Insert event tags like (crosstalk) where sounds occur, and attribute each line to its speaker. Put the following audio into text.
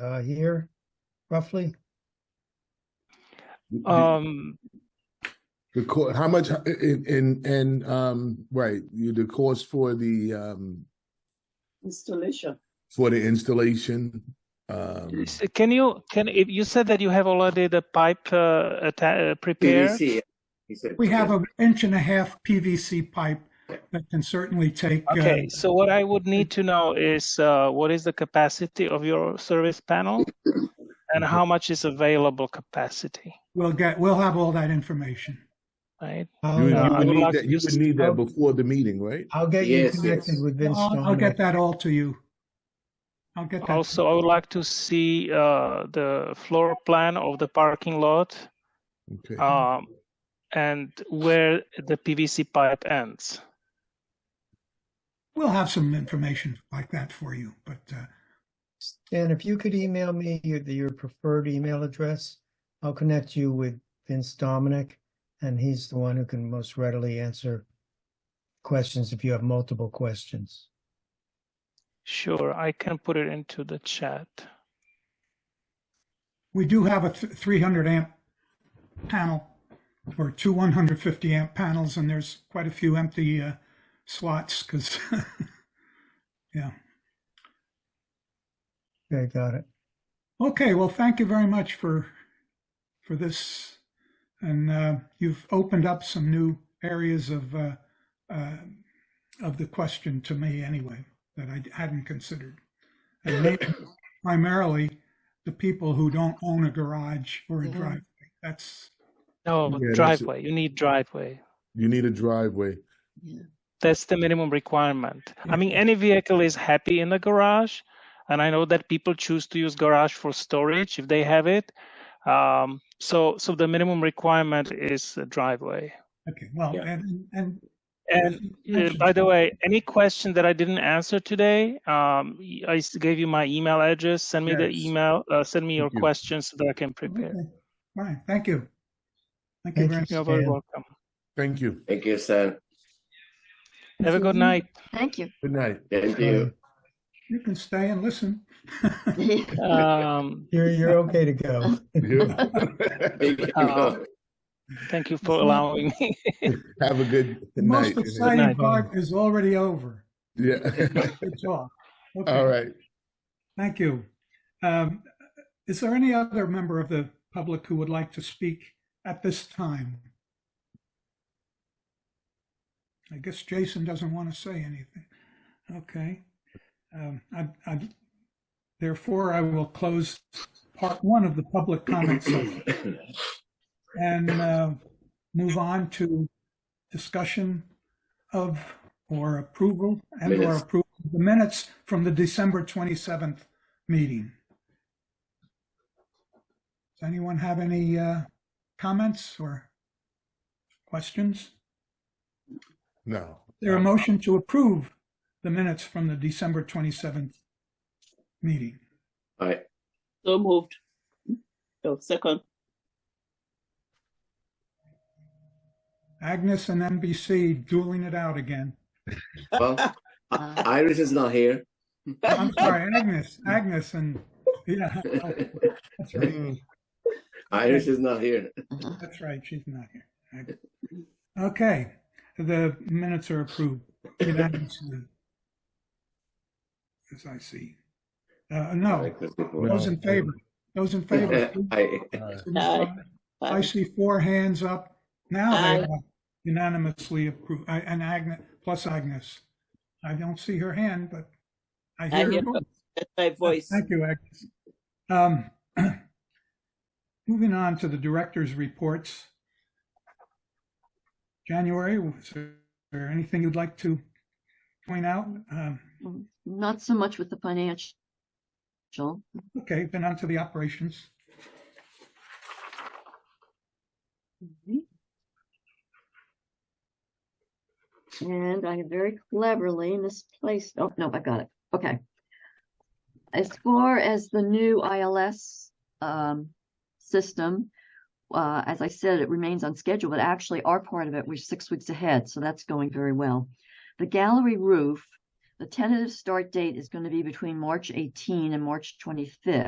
Speaker 1: uh, year, roughly?
Speaker 2: Um,
Speaker 3: The cost, how much, in, in, in, um, right, you, the cost for the, um,
Speaker 4: installation.
Speaker 3: for the installation, um,
Speaker 2: s- can you can if you said that you have already the pipe uh, atta- uh, prepared?
Speaker 5: PVC. He said.
Speaker 6: We have an inch and a half PVC pipe that can certainly take. uh,
Speaker 2: Okay, so what I would need to know is uh, what is the capacity of your service panel, and how
Speaker 3: Mm-hmm.
Speaker 2: much is available capacity,
Speaker 6: We'll get, we'll have all that information.
Speaker 2: right?
Speaker 3: you,
Speaker 1: I'll,
Speaker 3: you
Speaker 2: I
Speaker 1: uh,
Speaker 2: would
Speaker 3: would
Speaker 2: like
Speaker 3: need that,
Speaker 2: to
Speaker 3: you
Speaker 2: just-
Speaker 3: would need that before the meeting, right?
Speaker 1: I'll get you
Speaker 5: Yes,
Speaker 1: connected
Speaker 5: yes.
Speaker 1: with Vince
Speaker 6: I'll, I'll
Speaker 1: Stoneman.
Speaker 6: get that all to you. I'll get that.
Speaker 2: Also, I would like to see uh, the floor plan of the parking lot
Speaker 3: Okay.
Speaker 2: um, and where the PVC pipe ends.
Speaker 6: We'll have some information like that for you, but, uh,
Speaker 1: And if you could email me your, your preferred email address, I'll connect you with Vince Dominic, and he's the one who can most readily answer questions if you have multiple questions.
Speaker 2: Sure, I can put it into the chat.
Speaker 6: we do have a th- 300 amp panel or two 150 amp panels and there's quite a few empty, uh, slots (laughs) because, yeah.
Speaker 1: Okay, got it.
Speaker 6: Okay, well, thank you very much for, for this. And uh, you've opened up some new areas of, uh, uh, of the question to me anyway, that I hadn't considered. And maybe primarily the people who don't own a garage or a
Speaker 4: Mhm.
Speaker 6: driveway. That's,
Speaker 2: No,
Speaker 3: Yeah, that's it.
Speaker 2: driveway. You need driveway.
Speaker 3: You need a driveway.
Speaker 2: That's the minimum requirement. I mean, any vehicle is happy in the garage, and I know that people choose to use garage for storage if they have it. Um, so, so the minimum requirement is a driveway.
Speaker 6: okay, well,
Speaker 5: Yeah.
Speaker 6: and, and.
Speaker 2: And uh,
Speaker 6: Mentioned
Speaker 2: by the way, any question that I didn't answer today, um, y- I s- gave you my email address. Send me the
Speaker 6: Yes.
Speaker 2: email. Uh, send me your
Speaker 3: Thank you.
Speaker 2: questions so that I can prepare.
Speaker 6: Okay, Fine, thank you. Thank you
Speaker 1: Thank
Speaker 6: very
Speaker 1: you.
Speaker 6: much.
Speaker 2: You're very
Speaker 1: Stan.
Speaker 2: welcome.
Speaker 3: Thank you.
Speaker 5: Thank you, sir.
Speaker 2: Have a good night.
Speaker 4: Thank you.
Speaker 3: Good night.
Speaker 5: Thank you.
Speaker 6: You can stay and listen.
Speaker 2: Um,
Speaker 1: You're, you're okay to go.
Speaker 3: (laughs)
Speaker 5: (laughs) Thank you.
Speaker 2: Uh, thank you for allowing me.
Speaker 3: Have a good
Speaker 6: The most
Speaker 3: night.
Speaker 6: exciting
Speaker 2: night.
Speaker 6: part is already over.
Speaker 3: Yeah. (laughs)
Speaker 6: Good talk. Okay.
Speaker 3: All right.
Speaker 6: Thank you. Um, Is there any other member of the public who would like to speak at this time? I guess Jason doesn't want to say anything. Okay. Um, I- I- Therefore, I will close part one of the public comment session and uh, move on to discussion of or approval and or
Speaker 5: Minutes.
Speaker 6: approval of the minutes from the December 27th meeting. Does anyone have any uh, comments or questions?
Speaker 3: No.
Speaker 6: There a motion to approve the minutes from the December 27th meeting?
Speaker 5: All right.
Speaker 4: (laughs) So moved. So second.
Speaker 6: Agnes and NBC dueling it out again.
Speaker 5: Well, I- Iris is not here.
Speaker 6: I'm sorry, Agnes, Agnes and, yeah, (laughs) that's right.
Speaker 3: Mm.
Speaker 5: (laughs) Iris is not here.
Speaker 6: That's right, she's not here. Okay, the minutes are approved unanimously. As I see. Uh, no,
Speaker 5: Like this before.
Speaker 6: those in favor, those in favor.
Speaker 5: (laughs) I-
Speaker 3: All
Speaker 4: Aye.
Speaker 6: I see four hands up. Now they
Speaker 4: Aye.
Speaker 6: are unanimously approved, I- and Agnes, plus Agnes. I don't see her hand, but I
Speaker 4: I
Speaker 6: hear her
Speaker 4: hear
Speaker 6: voice.
Speaker 4: That's my voice.
Speaker 6: Thank you, Agnes. Um, (clears throat) Moving on to the director's reports. January, was there anything you'd like to point out? Um,
Speaker 7: Not so much with the financial.
Speaker 6: Okay, then on to the operations.
Speaker 7: And I very cleverly misplaced, oh, no, I got it. Okay. As far as the new ILS um, system, uh, as I said, it remains on schedule, but actually our part of it, we're six weeks ahead, so that's going very well. The gallery roof, the tentative start date is going to be between March 18 and March 25th.